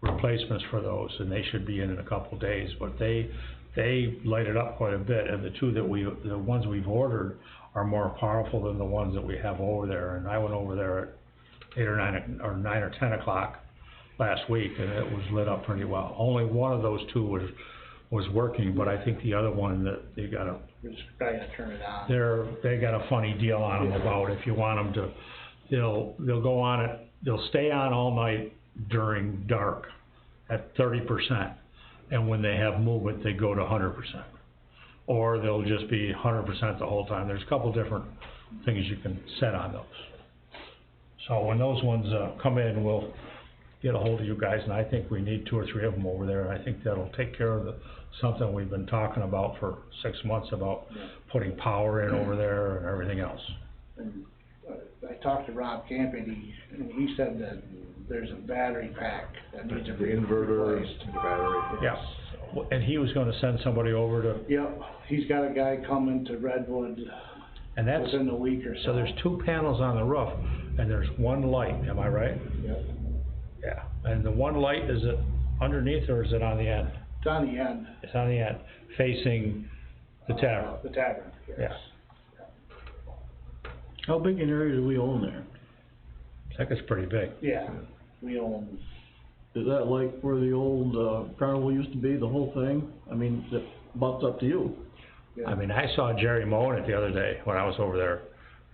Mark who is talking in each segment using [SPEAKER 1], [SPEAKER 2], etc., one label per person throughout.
[SPEAKER 1] replacements for those, and they should be in in a couple days, but they, they light it up quite a bit, and the two that we, the ones we've ordered are more powerful than the ones that we have over there, and I went over there at eight or nine, o- or nine or ten o'clock last week, and it was lit up pretty well. Only one of those two was, was working, but I think the other one that they got a
[SPEAKER 2] We're just probably gonna turn it on.
[SPEAKER 1] they're, they got a funny deal on them about if you want them to, they'll, they'll go on it, they'll stay on all night during dark at thirty percent. And when they have movement, they go to hundred percent. Or they'll just be hundred percent the whole time. There's a couple different things you can set on those. So when those ones, uh, come in, we'll get a hold of you guys, and I think we need two or three of them over there. I think that'll take care of the, something we've been talking about for six months about putting power in over there and everything else.
[SPEAKER 2] And uh, I talked to Rob Camp and he, and he said that there's a battery pack that needs to
[SPEAKER 3] The
[SPEAKER 2] be
[SPEAKER 3] inverter,
[SPEAKER 2] replaced.
[SPEAKER 3] the battery.
[SPEAKER 1] Yeah, W- and he was gonna send somebody over to,
[SPEAKER 2] Yep, he's got a guy coming to Redwood
[SPEAKER 1] and that's,
[SPEAKER 2] within a week or so.
[SPEAKER 1] so there's two panels on the roof, and there's one light, am I right?
[SPEAKER 2] Yep.
[SPEAKER 1] Yeah. And the one light, is it underneath or is it on the end?
[SPEAKER 2] It's on the end.
[SPEAKER 1] It's on the end, facing the tavern.
[SPEAKER 2] Uh, The tavern, yes.
[SPEAKER 1] Yeah.
[SPEAKER 4] How big an area do we own there?
[SPEAKER 1] I think it's pretty big.
[SPEAKER 2] Yeah, we own,
[SPEAKER 4] Is that like where the old, uh, carnival used to be, the whole thing? I mean, that butts up to you.
[SPEAKER 1] I mean, I saw Jerry mowing it the other day when I was over there,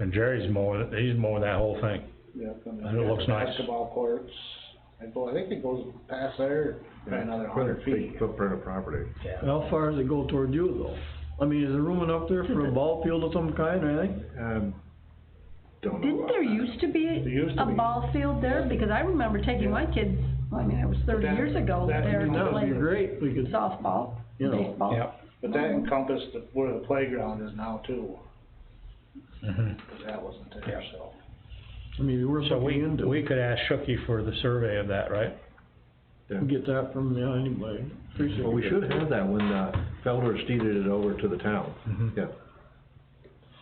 [SPEAKER 1] and Jerry's mowing, it- he's mowing that whole thing.
[SPEAKER 2] yep.
[SPEAKER 1] And it looks nice.
[SPEAKER 2] Basketball courts. I go, I think it goes past there by another hundred feet.
[SPEAKER 3] Big Footprint of property.
[SPEAKER 1] Yeah.
[SPEAKER 4] How far does it go toward you though? I mean, is there room enough there for a ball field of some kind or anything?
[SPEAKER 3] Um, don't know.
[SPEAKER 5] Didn't
[SPEAKER 3] about
[SPEAKER 5] there
[SPEAKER 3] that.
[SPEAKER 5] used to be
[SPEAKER 2] used to
[SPEAKER 5] a
[SPEAKER 2] be.
[SPEAKER 5] ball field there? Because I remember taking my kids, well, I mean, it was thirty
[SPEAKER 2] That-
[SPEAKER 5] years ago,
[SPEAKER 2] that-
[SPEAKER 5] there
[SPEAKER 2] that
[SPEAKER 5] to
[SPEAKER 4] That would be
[SPEAKER 5] play
[SPEAKER 4] great, we could,
[SPEAKER 5] softball,
[SPEAKER 4] You know,
[SPEAKER 5] baseball.
[SPEAKER 1] Yep.
[SPEAKER 2] But that encompassed the, where the playground is now too.
[SPEAKER 1] Mhm.
[SPEAKER 2] Cause that wasn't there,
[SPEAKER 1] Yeah.
[SPEAKER 2] so.
[SPEAKER 4] I mean, we're
[SPEAKER 1] So we,
[SPEAKER 4] looking into.
[SPEAKER 1] we could ask Shooky for the survey of that, right?
[SPEAKER 3] Yeah.
[SPEAKER 4] Get that from, yeah, anybody. Appreciate
[SPEAKER 3] Well, we
[SPEAKER 4] it.
[SPEAKER 3] should have that when, uh, Felder's deeded it over to the town.
[SPEAKER 1] Mhm.
[SPEAKER 3] Yeah.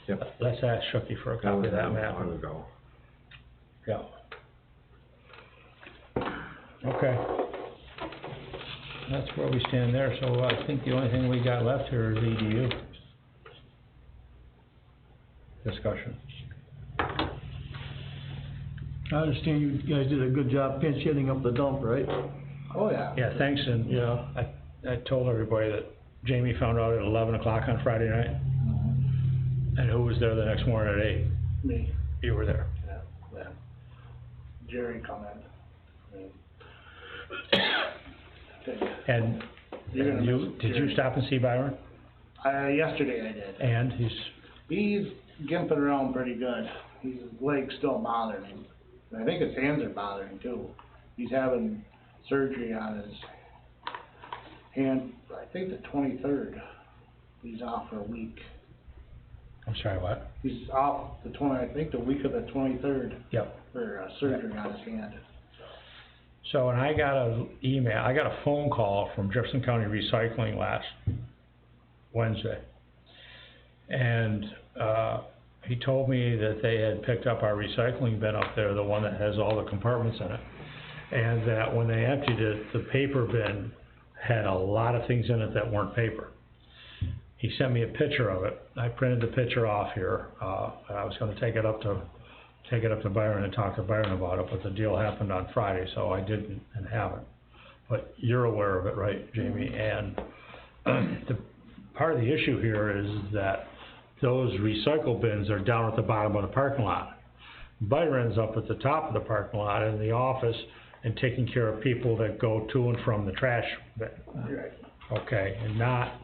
[SPEAKER 3] Yep.
[SPEAKER 1] Let's ask Shooky for a
[SPEAKER 3] That
[SPEAKER 1] copy
[SPEAKER 3] was
[SPEAKER 1] of that
[SPEAKER 3] long
[SPEAKER 1] map.
[SPEAKER 3] long ago.
[SPEAKER 1] Yeah. Okay. That's where we stand there, so I think the only thing we got left here is E EDU. Discussion.
[SPEAKER 4] I understand you guys did a good job pinch hitting up the dump, right?
[SPEAKER 2] Oh, yeah.
[SPEAKER 1] Yeah, thanks, and, you know, I, I told everybody that Jamie found out at eleven o'clock on Friday night,
[SPEAKER 2] Mhm.
[SPEAKER 1] and who was there the next morning at eight?
[SPEAKER 2] Me,
[SPEAKER 1] You were there.
[SPEAKER 2] yeah, yeah. Jerry come in. Yeah.
[SPEAKER 1] And
[SPEAKER 2] You're gonna
[SPEAKER 1] you,
[SPEAKER 2] miss
[SPEAKER 1] did you
[SPEAKER 2] Jerry.
[SPEAKER 1] stop and see Byron?
[SPEAKER 2] Uh, yesterday I did.
[SPEAKER 1] And he's,
[SPEAKER 2] He's gimping around pretty good. His leg's still bothering him. And I think his hands are bothering him too. He's having surgery on his hand, I think the twenty-third. He's off for a week.
[SPEAKER 1] I'm sorry, what?
[SPEAKER 2] He's off the twenty, I think the week of the twenty-third
[SPEAKER 1] Yep.
[SPEAKER 2] for uh, surgery on his hand.
[SPEAKER 1] So, and I got a email, I got a phone call from Jefferson County Recycling last Wednesday. And, uh, he told me that they had picked up our recycling bin up there, the one that has all the compartments in it. And that when they emptied it, the paper bin had a lot of things in it that weren't paper. He sent me a picture of it. I printed the picture off here, uh, and I was gonna take it up to take it up to Byron and talk to Byron about it, but the deal happened on Friday, so I didn't and haven't. But you're aware of it, right, Jamie? And the, part of the issue here is that those recycle bins are down at the bottom of the parking lot. Byron's up at the top of the parking lot in the office and taking care of people that go to and from the trash bin.
[SPEAKER 2] Right.
[SPEAKER 1] Okay, and not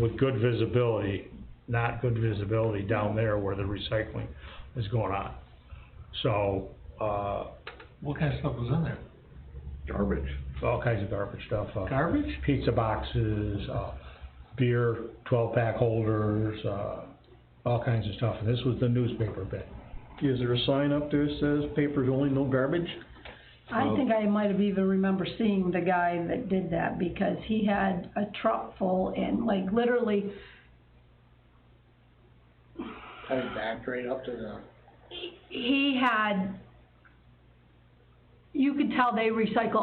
[SPEAKER 1] with good visibility, not good visibility down there where the recycling is going on. So, uh,
[SPEAKER 6] What kind of stuff was in there?
[SPEAKER 3] Garbage.
[SPEAKER 1] all kinds of garbage stuff, uh,
[SPEAKER 6] Garbage?
[SPEAKER 1] pizza boxes, uh, beer twelve-pack holders, uh, all kinds of stuff, and this was the newspaper bit.
[SPEAKER 4] Is there a sign up there that says papers only, no garbage?
[SPEAKER 5] I think I might have even remember seeing the guy that did that because he had a truck full and like literally,
[SPEAKER 2] Had his back right up to the,
[SPEAKER 5] he had, you could tell they recycle